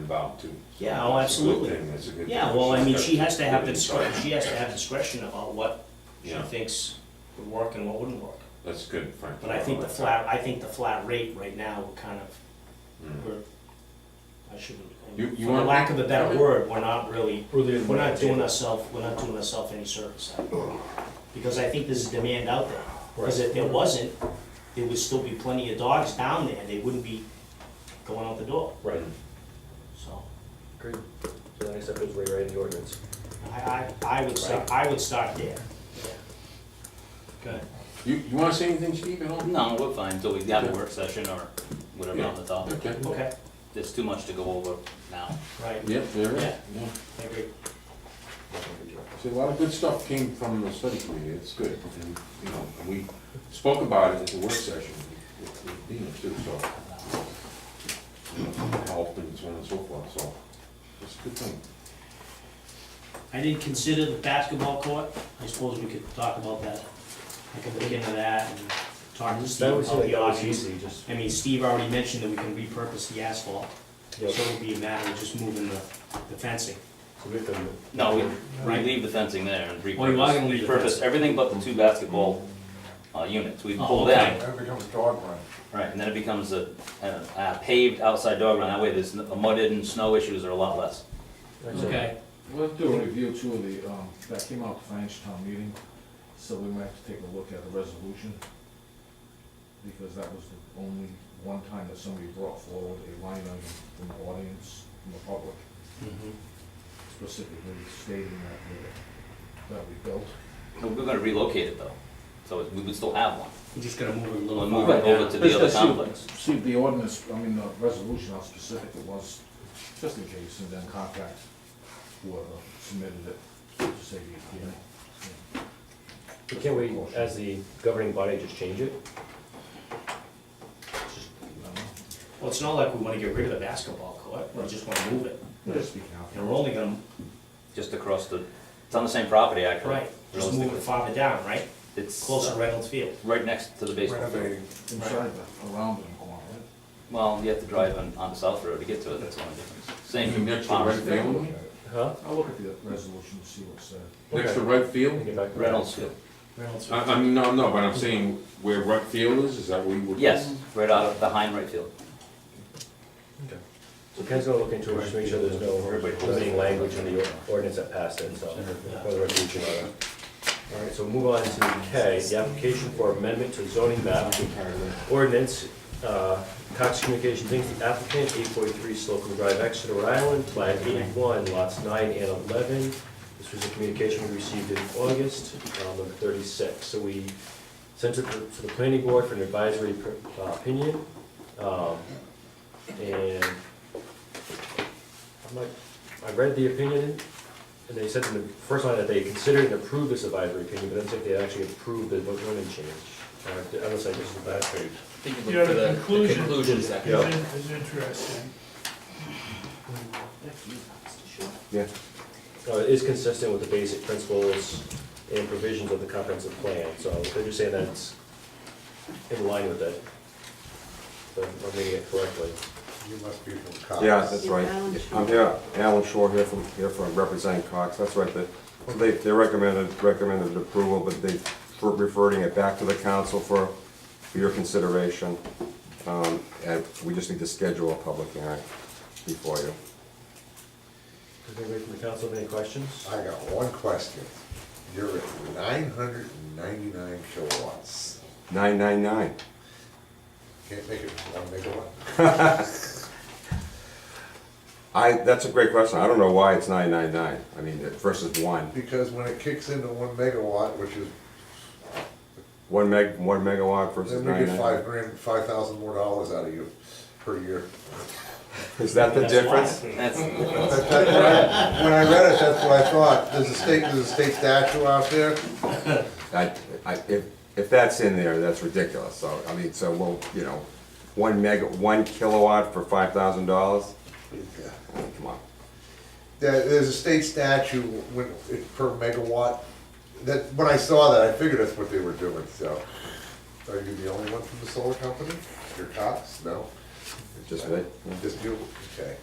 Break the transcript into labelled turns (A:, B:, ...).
A: involved too.
B: Yeah, oh,
A: That's a good
B: absolutely.
A: thing, that's a good
B: Yeah,
A: thing.
B: well, I mean,
A: She's got
B: she has to have the
A: good
B: discretion,
A: insight.
B: she has to have discretion about what she
A: Yeah.
B: thinks would work and what wouldn't work.
A: That's good, Frank.
B: But I think the flat, I think the flat rate right now, we're kind of,
A: Mm.
B: we're, I shouldn't,
A: You-
B: for
A: you
B: the
A: want-
B: lack of a better word, we're not really,
C: Really,
B: we're not doing ourselves, we're not doing ourselves any service. I believe. Because I think there's a demand out there, because if there wasn't, there would still be plenty of dogs down there, they wouldn't be going out the door,
C: Right,
B: so.
C: great. So the next step is rewriting the ordinance.
B: I, I, I would start, I would start there. Good.
A: You, you wanna say anything, Steve, at all?
D: No, we're fine until we have a work session or whatever on the topic.
A: Okay,
B: Okay,
D: There's too much to go over now.
B: right,
A: yep, there is.
B: Yeah.
A: Yeah.
B: I agree.
A: See, a lot of good stuff came from the study committee, it's good, and, you know, and we spoke about it at the work session with with Dina too, so. you know, Helped and so on and so forth, so, it's a good thing.
B: I didn't consider the basketball court, I suppose we could talk about that. I could look into that and talk to Steve about the options.
C: just.
B: I mean, Steve already mentioned that we can repurpose the asphalt, so
C: Yep.
B: it would be a matter of just moving the, the fencing.
C: So we can-
D: No, we, we
B: Right.
D: leave the fencing there and
B: Well, you are gonna
D: repurpose,
B: leave the
D: repurpose
B: fencing.
D: everything but the two basketball, uh, units. We
B: Oh,
D: pull
B: okay.
D: them.
E: That becomes dog run.
D: Right, and then it becomes a, a a paved outside dog run. That way there's n- mudded and snow issues are a lot less.
F: We'll have to do a review too of the, um, that came out at the financial town meeting, so we might have to take a look at the resolution. Because that was the only one time that somebody brought forward a line item from the audience, from the public,
B: Mm-hmm.
F: specifically stating that we, that we built.
D: We're gonna relocate it though, so we would still have one.
B: We're just gonna move it a
D: We'll
B: little
D: move it
B: farther
D: over to
B: down.
D: the other
F: Let's- let's see-
D: complex.
F: See the ordinance, I mean, the resolution, how specific it was, just in case, and then contact whoever submitted it, to say, you know.
C: But Can't we, as the governing body, just change it?
B: Well, it's not like we wanna get rid of the basketball court, we just wanna move it,
F: Just speaking out.
B: and we're only gonna,
D: Just across the, it's on the same property actually.
B: right, just move
D: realistically.
B: it farther down, right?
D: It's
B: Closer to
D: uh,
B: Reynolds Field.
D: right next to the baseball field.
E: Renovating.
F: Inside the, around the corner, right?
D: Well, you have to drive on, on the South Road to get to it, that's the only difference.
A: You
D: Same.
A: Next to Red
D: farm.
A: Field,
C: Huh?
F: I'll look at the resolution, and see what's there.
A: next to Red
C: We
A: Field,
C: can back-
D: Reynolds Field.
B: Reynolds
A: I,
B: Field.
A: I mean, no, no, but I'm saying where Red Field is, is that where you would?
D: Yes, right out of behind right field.
C: So Ken's gonna look into it, just make sure there's no limiting language in the or- ordinance that passed it, so, for the resolution on it. All right, so move on to K, the application for amendment to zoning map ordinance, uh, Cox Communications Inc., the applicant, eight forty-three Slocum Drive, Exeter, Rhode Island, plat eighty-one, lots nine and eleven. This was a communication we received in August, um, number thirty-six, so we sent it to to the planning board for an advisory per- uh, opinion. Um, And I'm like, I read the opinion, and they said in the first line that they considered and approved this advisory opinion, but then said they actually approved the zoning change. Uh, Unless I missed the last page.
G: Yeah, the conclusion
D: Conclusions,
G: is
C: Yeah.
G: in- is interesting.
A: Yeah.
C: Uh, it is consistent with the basic principles and provisions of the comprehensive plan, so they're just saying that it's in line with it. So I'm reading it correctly.
E: You must be from Cox.
H: Yeah, that's
I: Yeah,
H: right.
I: Alan Shore.
H: I'm here, Alan Shore here from, here from representing Cox, that's right. They- so They, they recommended, recommended approval, but they were referring it back to the council for, for your consideration. Um, And we just need to schedule a public hearing before you.
C: Does anybody from the council have any questions?
E: I got one question. You're at nine hundred and ninety-nine kilowatts.
H: Nine nine nine.
E: Can't make it one megawatt?
H: I, that's a great question. I don't know why it's nine nine nine. I mean, versus one.
E: Because when it kicks into one megawatt, which is,
H: One meg, one megawatt versus
E: then we
H: nine
E: get
H: nine.
E: five grand, five thousand more dollars out of you per year.
H: Is that the
B: That's why.
H: difference?
D: That's,
E: That's- that's what I- When I read it, that's what I thought. There's a state, there's a state statue out there.
H: I, I, if, if that's in there, that's ridiculous, so, I mean, so we'll, you know, one mega, one kilowatt for five thousand dollars? Come on.
E: There- There's a state statute when, it- per megawatt. That, when I saw that, I figured that's what they were doing, so. Are you the only one from the solar company? Your cops? No?
H: Just me?
E: Just you? Okay.